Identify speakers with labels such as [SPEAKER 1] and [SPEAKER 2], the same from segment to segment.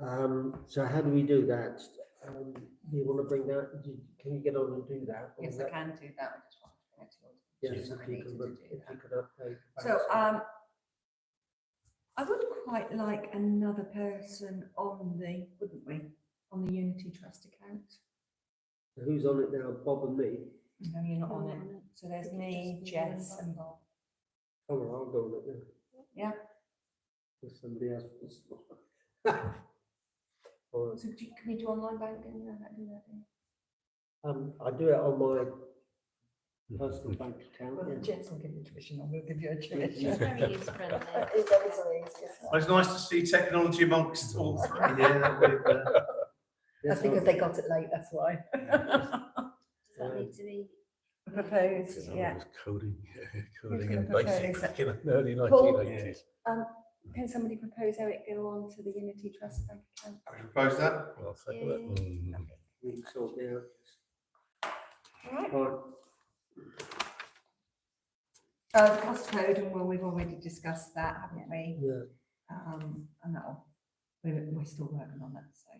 [SPEAKER 1] Um, so how do we do that? Um, do you want to bring that, do- can you get on and do that? Or
[SPEAKER 2] Yes, I
[SPEAKER 1] that-
[SPEAKER 2] can do that. I just want to connect to your-
[SPEAKER 1] Yes,
[SPEAKER 2] Yes,
[SPEAKER 1] if
[SPEAKER 2] I
[SPEAKER 1] you
[SPEAKER 2] need
[SPEAKER 1] could,
[SPEAKER 2] to
[SPEAKER 1] look-
[SPEAKER 2] do
[SPEAKER 1] if
[SPEAKER 2] that.
[SPEAKER 1] you could update.
[SPEAKER 2] So,
[SPEAKER 1] that.
[SPEAKER 2] um, I would quite like another person on the, wouldn't we, on the Unity Trust account?
[SPEAKER 1] Who's on it now? Bob and me?
[SPEAKER 2] No, you're not on
[SPEAKER 3] Not
[SPEAKER 2] it.
[SPEAKER 3] on it.
[SPEAKER 2] So there's
[SPEAKER 3] Could you
[SPEAKER 2] me,
[SPEAKER 3] just be one
[SPEAKER 2] Jess
[SPEAKER 3] of
[SPEAKER 2] and Bob.
[SPEAKER 1] Oh, well, I'll go on it now.
[SPEAKER 2] Yeah.
[SPEAKER 1] If somebody else wants. Or,
[SPEAKER 2] So do you- can we do online banking? No, that'd be lovely.
[SPEAKER 1] Um, I do it on my
[SPEAKER 2] Mm-hmm.
[SPEAKER 1] personal bank account.
[SPEAKER 2] Well,
[SPEAKER 1] yeah.
[SPEAKER 2] Jess will give you tuition and we'll give you a
[SPEAKER 3] It's
[SPEAKER 2] tuition.
[SPEAKER 3] very user friendly.
[SPEAKER 2] It's always the easiest.
[SPEAKER 4] Well, It's nice to see technology amongst all three.
[SPEAKER 1] Yeah, with, uh,
[SPEAKER 2] That's
[SPEAKER 1] yes,
[SPEAKER 2] because
[SPEAKER 1] I'll-
[SPEAKER 2] they got it late, that's why.
[SPEAKER 3] Does that need to be?
[SPEAKER 2] Proposed, yeah.
[SPEAKER 5] Coding,
[SPEAKER 2] coding
[SPEAKER 5] coding
[SPEAKER 2] in
[SPEAKER 5] in
[SPEAKER 2] propose basic
[SPEAKER 5] basic
[SPEAKER 2] that-
[SPEAKER 5] in the early
[SPEAKER 2] Paul?
[SPEAKER 5] nineteen eighties.
[SPEAKER 2] Can somebody propose how it go on to the Unity Trust bank account?
[SPEAKER 4] I propose that.
[SPEAKER 5] Mm.
[SPEAKER 1] We can sort it out.
[SPEAKER 2] All right.
[SPEAKER 1] Right,
[SPEAKER 2] Uh, cost code, and well, we've already discussed that, haven't we?
[SPEAKER 1] yeah.
[SPEAKER 2] Um, and that'll, we're, we're still working on that, so.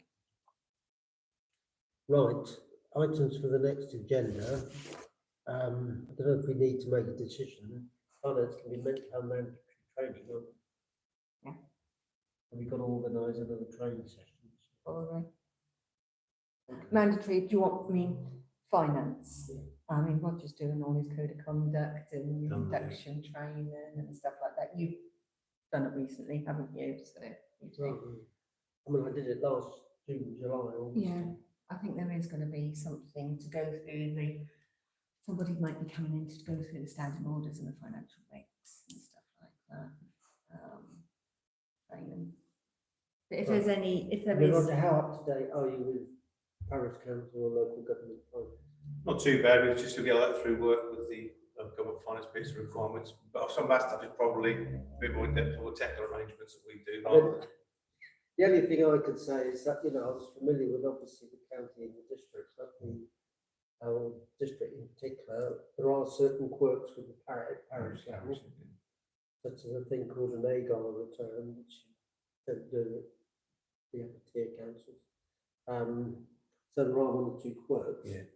[SPEAKER 1] Right, items for the next agenda. Um, I don't know if we need to make a decision. Finance can be mental health mandatory training on.
[SPEAKER 2] Yeah.
[SPEAKER 1] And we got to organise another training session.
[SPEAKER 2] Probably. Mandatory, do you want, I mean, finance? I mean, Roger's doing all his code of conduct and
[SPEAKER 4] Done that, yeah.
[SPEAKER 2] induction training and stuff like that. You've done it recently, haven't you? So. you
[SPEAKER 1] Right,
[SPEAKER 2] think-
[SPEAKER 1] I mean, I did it last June, July, August.
[SPEAKER 2] Yeah, I think there is gonna be something to go through the, somebody might be coming in to go through the standing orders and the financial rates and stuff like that. um, Training. But if there's any, if
[SPEAKER 1] I
[SPEAKER 2] there
[SPEAKER 1] mean,
[SPEAKER 2] is.
[SPEAKER 1] Roger, how up to date are you with parish council or local government? finance?
[SPEAKER 4] Not too bad, we've just to get that through work with the uh, government finance piece of requirements, but some of that stuff is probably a bit more in depth or technical arrangements that we do.
[SPEAKER 1] I mean, The only thing I could say is that, you know, I was familiar with obviously the county and the district, but the our district in particular, there are certain quirks with the parish, parish level, such as a thing called an agar return, which don't do it, the upper tier councils. Um, so there are one or two quirks.
[SPEAKER 4] Yeah.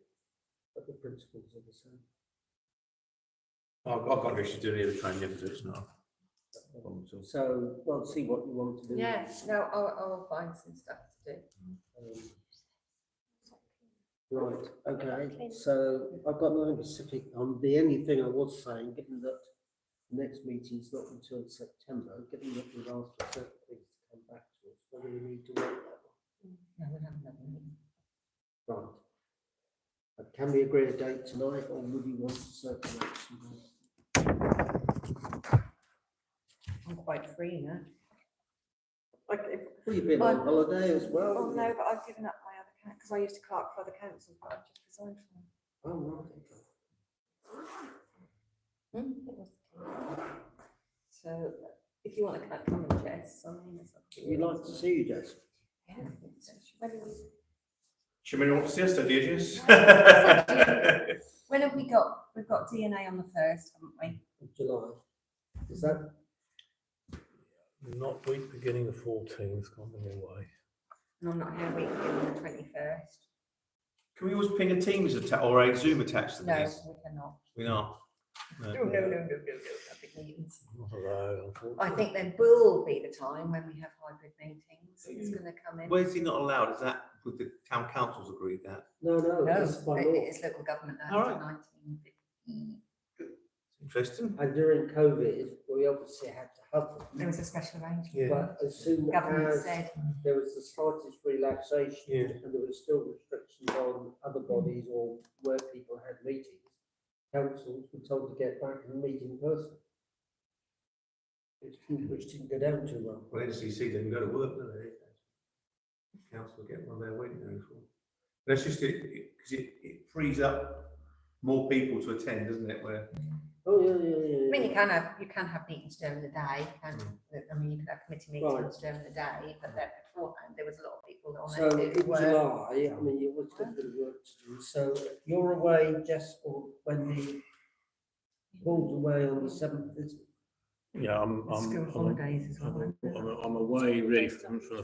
[SPEAKER 1] But the principles are the same.
[SPEAKER 4] I've, I've got no issues doing either training, if it's not. a problem at all.
[SPEAKER 1] So, well, see what you want to do.
[SPEAKER 2] Yeah, no, I'll, I'll find some stuff to do.
[SPEAKER 1] Um, Right, okay,
[SPEAKER 3] Clean.
[SPEAKER 1] so I've got nothing specific on the only thing I was saying, given that the next meeting's not until September, given that we've asked for certain things to come back to us, whether we need to wait that
[SPEAKER 2] No, we'll have another meeting.
[SPEAKER 1] long. Right. But Can we agree a date tonight or would you want to circulate some more?
[SPEAKER 2] I'm quite free now.
[SPEAKER 1] Well, you've been on
[SPEAKER 2] Well,
[SPEAKER 1] holiday as well.
[SPEAKER 2] Well,
[SPEAKER 1] haven't
[SPEAKER 2] oh, no,
[SPEAKER 1] you?
[SPEAKER 2] but I've given up my other council, because I used to clerk for other councils, but I've just resigned from them.
[SPEAKER 1] Oh, right, okay.
[SPEAKER 2] Hmm, So if you want to clerk on Jess, I mean, it's up to
[SPEAKER 1] We'd
[SPEAKER 2] you.
[SPEAKER 1] like to see you, Jess.
[SPEAKER 2] Yeah, I think so. When have we-
[SPEAKER 4] Should we not see us, do you, Jess?
[SPEAKER 2] When have we got, we've got DNA on the first, haven't we?
[SPEAKER 1] in July. Is that,
[SPEAKER 5] Not week beginning the fourteenth, gone the new way.
[SPEAKER 2] And I'm not here week on the twenty-first.
[SPEAKER 4] Can we always ping a Teams atta- or a Zoom attached to
[SPEAKER 2] No,
[SPEAKER 4] these?
[SPEAKER 2] we cannot.
[SPEAKER 4] We are.
[SPEAKER 2] No,
[SPEAKER 4] No.
[SPEAKER 2] no, no, no, no, no, big meetings.
[SPEAKER 5] Not allowed,
[SPEAKER 2] I
[SPEAKER 5] unfortunately.
[SPEAKER 2] think there will be the time when we have hybrid meetings, it's gonna come in.
[SPEAKER 4] Where's he not allowed? Is that, with the town council's agreed that?
[SPEAKER 1] no, no,
[SPEAKER 2] No,
[SPEAKER 1] that's by law.
[SPEAKER 2] it's local government
[SPEAKER 4] All
[SPEAKER 2] act
[SPEAKER 4] right.
[SPEAKER 2] nineteen fifty.
[SPEAKER 4] Interesting.
[SPEAKER 1] And during COVID, we obviously had to have
[SPEAKER 2] There
[SPEAKER 1] them.
[SPEAKER 2] was a special arrangement.
[SPEAKER 4] Yeah.
[SPEAKER 1] But as soon
[SPEAKER 2] Government
[SPEAKER 1] as
[SPEAKER 2] said,
[SPEAKER 1] there was the slightest
[SPEAKER 4] Yeah.
[SPEAKER 1] relaxation and there was still restrictions on other bodies or where people had meetings, councils were told to get back and meet in person. Which, which didn't go down too well.
[SPEAKER 4] Well, NCC didn't go to work, did they? Council get one there waiting there for. That's just it, because it, it frees up more people to attend, doesn't it, where?
[SPEAKER 1] Oh, yeah, yeah, yeah,
[SPEAKER 2] I
[SPEAKER 1] yeah.
[SPEAKER 2] mean, you can have, you can have meetings during the day, and, I mean, you could have committee
[SPEAKER 1] Right.
[SPEAKER 2] meetings during the day, but then beforehand, there was a lot of people on
[SPEAKER 1] So
[SPEAKER 2] there
[SPEAKER 1] in
[SPEAKER 2] who were.
[SPEAKER 1] July, I mean, you've always got a bit of work to do, so you're away, Jess, or when the ball's away on the seventh,
[SPEAKER 5] Yeah, I'm, I'm,
[SPEAKER 2] School
[SPEAKER 5] I'm-
[SPEAKER 2] holidays as well.
[SPEAKER 5] I'm,
[SPEAKER 2] aren't there?
[SPEAKER 5] I'm- I'm away really from, from the